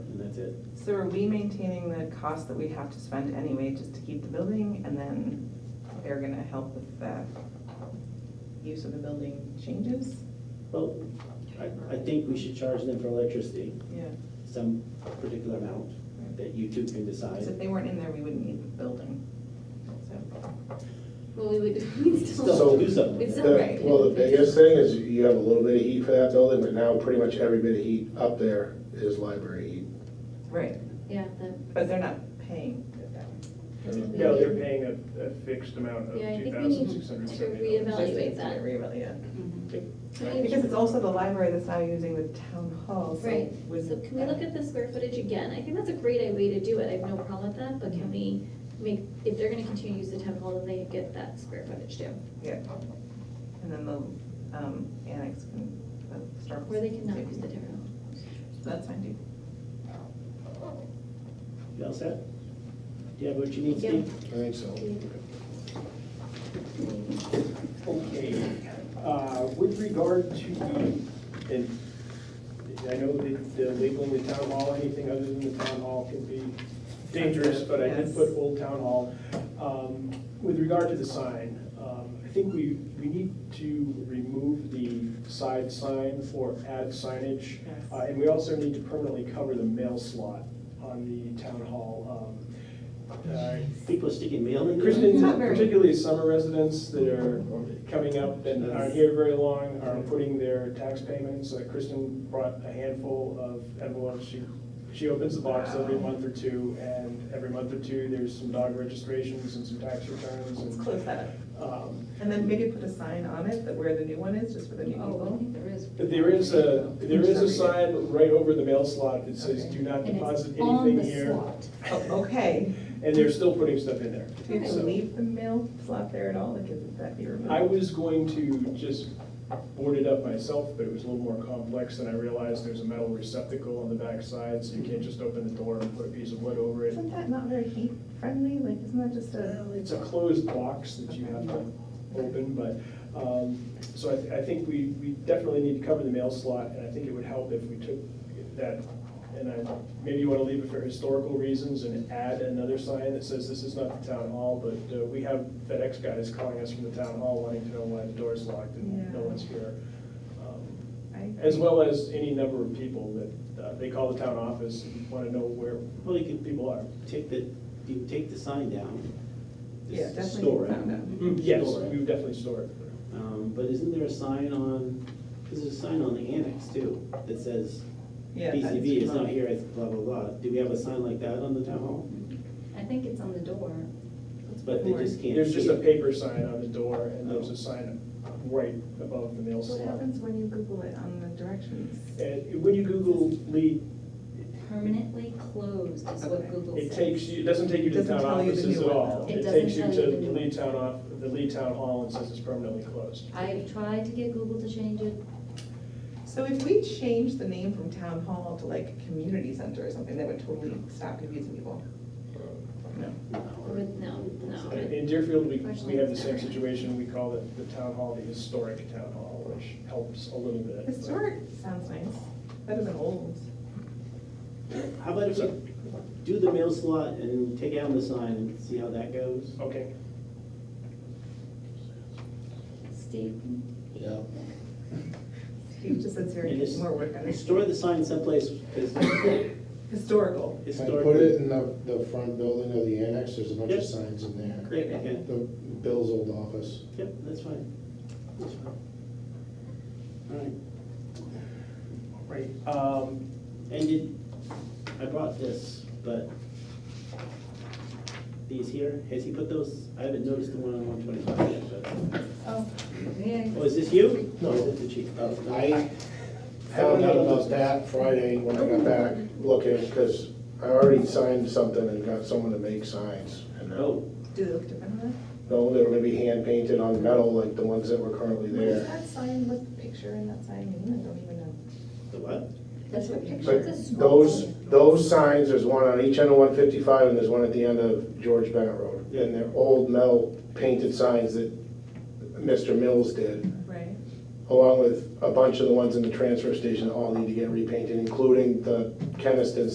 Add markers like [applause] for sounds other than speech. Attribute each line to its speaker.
Speaker 1: it.
Speaker 2: So are we maintaining the cost that we have to spend anyway just to keep the building and then they're gonna help with the use of the building changes?
Speaker 1: Well, I, I think we should charge them for electricity,
Speaker 2: Yeah.
Speaker 1: some particular amount that you two can
Speaker 2: Because if
Speaker 1: decide.
Speaker 2: they weren't in there, we wouldn't need the building. So,
Speaker 3: Well, we would, [laughs] we'd
Speaker 1: Still
Speaker 3: still,
Speaker 1: do something.
Speaker 3: we'd still,
Speaker 4: The-
Speaker 3: right.
Speaker 4: Well, the biggest thing is you have a little bit of heat for that building, but now pretty much every bit of heat up there is library heat.
Speaker 2: right,
Speaker 3: Yeah, the,
Speaker 2: but they're not paying it that way.
Speaker 5: No, they're paying a, a fixed amount of
Speaker 3: yeah, I
Speaker 5: two
Speaker 3: think we need
Speaker 5: thousand
Speaker 3: to
Speaker 5: six hundred seventy dollars.
Speaker 3: reevaluate
Speaker 2: Just to
Speaker 3: that.
Speaker 2: reevaluate, yeah.
Speaker 3: Can we-
Speaker 2: Because it's also the library that's now using the town hall, so.
Speaker 3: Right,
Speaker 2: would-
Speaker 3: so can we look at the square footage again? I think that's a great way to do it, I have no problem with that, but can we make, if they're gonna continue to use the town hall, then they get that square footage too,
Speaker 2: Yeah. And then the um, annex can, the Star.
Speaker 3: or they cannot use the town hall.
Speaker 2: That's fine, too.
Speaker 1: You all set? Do you have what you need,
Speaker 3: Yeah.
Speaker 1: Steve?
Speaker 4: I think so.
Speaker 5: Okay, uh, with regard to the, and I know that the legal in the town hall, anything other than the town hall can be dangerous, but I did
Speaker 2: Yes.
Speaker 5: put Old Town Hall. Um, With regard to the sign, um, I think we, we need to remove the side sign or add signage.
Speaker 2: Yes.
Speaker 5: Uh, And we also need to permanently cover the mail slot on the town hall. um, uh,
Speaker 1: People are sticking mail in there?
Speaker 5: Christians,
Speaker 2: Not very.
Speaker 5: particularly summer residents that are coming up and aren't here very long, are putting their tax payments. Uh, Kristen brought a handful of envelopes. She, she opens the box every month or two, and every month or two, there's some dog registrations and some tax returns
Speaker 2: Let's
Speaker 5: and,
Speaker 2: close that up.
Speaker 5: um,
Speaker 2: And then maybe put a sign on it that where the new one is, just for the new
Speaker 3: Oh, I
Speaker 2: people.
Speaker 3: think there is.
Speaker 5: but there is a, there is a sign right over the mail slot that says, do not
Speaker 3: And it's
Speaker 5: deposit
Speaker 3: on
Speaker 5: anything
Speaker 3: the
Speaker 5: here.
Speaker 3: slot.
Speaker 2: Oh, Okay,
Speaker 5: And they're still putting stuff in there.
Speaker 2: do you have to
Speaker 5: So-
Speaker 2: leave the mail slot there at all, like, could that be removed?
Speaker 5: I was going to just board it up myself, but it was a little more complex than I realized. There's a metal receptacle on the back side, so you can't just open the door and put a piece of wood over it.
Speaker 2: Isn't that not very heat friendly, like, isn't that just a?
Speaker 5: Well, It's a closed box that you have to open, but, um, so I, th- I think we, we definitely need to cover the mail slot, and I think it would help if we took that, and I, maybe you wanna leave it for historical reasons and add another sign that says this is not the town hall, but uh, we have FedEx guys calling us from the town hall wanting to know why the door's locked and no
Speaker 2: Yeah.
Speaker 5: one's here. Um,
Speaker 2: I-
Speaker 5: As well as any number of people that, uh, they call the town office and wanna know where
Speaker 1: Well, you could
Speaker 5: people are.
Speaker 1: take the, you can take the sign down. just
Speaker 2: Yeah, definitely
Speaker 1: store it.
Speaker 2: found out.
Speaker 1: Hmm.
Speaker 5: Mm, Yes,
Speaker 1: Store it.
Speaker 5: we would definitely store it.
Speaker 1: Um, but isn't there a sign on, because there's a sign on the annex too, that says
Speaker 2: Yeah, that's
Speaker 1: BCB is not
Speaker 2: fine.
Speaker 1: here, it's blah, blah, blah. Do we have a sign like that on the town hall?
Speaker 3: I think it's on the door.
Speaker 1: But they just can't
Speaker 5: There's just
Speaker 1: see
Speaker 5: a
Speaker 1: it.
Speaker 5: paper sign on the door, and there's a sign right above the mail
Speaker 2: What
Speaker 5: slot.
Speaker 2: happens when you Google it on the directions?
Speaker 5: And when you Google Lee,
Speaker 3: Permanently closed is
Speaker 2: Okay.
Speaker 3: what Google says.
Speaker 5: it takes you, it doesn't take you to
Speaker 2: Doesn't
Speaker 5: town
Speaker 2: tell you the
Speaker 5: offices
Speaker 2: new
Speaker 5: at
Speaker 2: one,
Speaker 5: all.
Speaker 3: though. It
Speaker 5: It
Speaker 3: doesn't
Speaker 5: takes you
Speaker 3: tell
Speaker 5: to
Speaker 3: you the
Speaker 5: the
Speaker 3: new
Speaker 5: Lee
Speaker 3: one.
Speaker 5: Town off, the Lee Town Hall and says it's permanently closed.
Speaker 3: I've tried to get Google to change it,
Speaker 2: So if we change the name from town hall to like community center or something, that would totally stop confusing people. No.
Speaker 3: but no, no.
Speaker 5: In in Deerfield, we, we
Speaker 3: Unfortunately,
Speaker 5: have the
Speaker 3: it's
Speaker 5: same
Speaker 3: never.
Speaker 5: situation, we call it the town hall, the historic town hall, which helps a little bit. but-
Speaker 2: Historic sounds nice, better than old.
Speaker 1: How about if you do the mail slot and take out the sign and see how that goes?
Speaker 5: Okay,
Speaker 3: Steve,
Speaker 4: Yeah.
Speaker 2: He just said
Speaker 1: And
Speaker 2: Syracuse,
Speaker 1: just-
Speaker 2: more work on it.
Speaker 1: Store the sign someplace, because
Speaker 2: Historical.
Speaker 4: If I put it in the, the front building of the annex, there's a bunch
Speaker 1: Yep.
Speaker 4: of signs in there.
Speaker 1: Great, okay,
Speaker 4: The Bill's old office.
Speaker 1: yep, that's fine. That's fine. All right,
Speaker 5: all right. Um,
Speaker 1: and did, I brought this, but these here, has he put those, I haven't noticed the one on one twenty-five yet, but,
Speaker 3: Oh, yeah.
Speaker 1: oh, is this you? Or is
Speaker 4: No.
Speaker 1: it the chief? Oh, no.
Speaker 4: I found out about that Friday when I got back looking, because I already signed something and got someone to make signs. and now-
Speaker 1: Oh,
Speaker 2: Do they look different on
Speaker 4: No, they were gonna be hand painted on metal like the ones that were currently
Speaker 2: that? What is
Speaker 4: there.
Speaker 2: that sign, what's the picture in that sign mean? I don't even know.
Speaker 1: the what?
Speaker 3: That's what pictures of
Speaker 4: But
Speaker 3: small.
Speaker 4: those, those signs, there's one on each end of one fifty-five and there's one at the end of George Bennett Road. And they're old metal painted signs that Mr. Mills did,
Speaker 2: Right.
Speaker 4: along with a bunch of the ones in the transfer station that all need to get repainted, including the Keniston